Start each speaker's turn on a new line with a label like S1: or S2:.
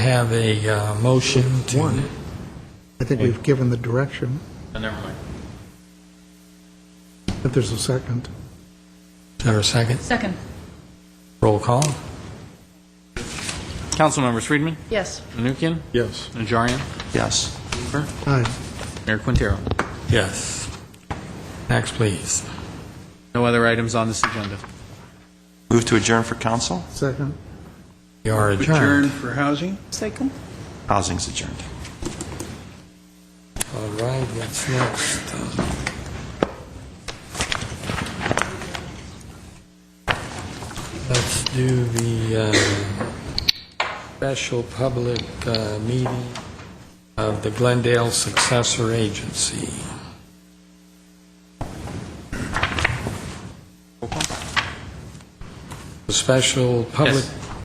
S1: have a uh, motion to,
S2: One. I think we've given the direction,
S3: Oh, Never mind.
S2: if there's a second.
S1: is there a second?
S4: Second,
S1: Roll call?
S3: Council members: Friedman,
S4: yes.
S3: Menuchyan,
S5: Yes.
S3: Najarian,
S6: Yes.
S3: Cooper,
S2: Aye.
S3: Mayor Quintero.
S1: Yes. Next, please.
S3: No other items on this agenda.
S6: Move to adjourn for council.
S2: Second.
S1: You are
S5: Adjourn
S1: adjourned.
S5: for housing?
S4: Second?
S6: Housing's adjourned.
S1: All right, what's next? Let's do the uh, special public uh, meeting of the Glendale Successor Agency. The special public
S3: Yes.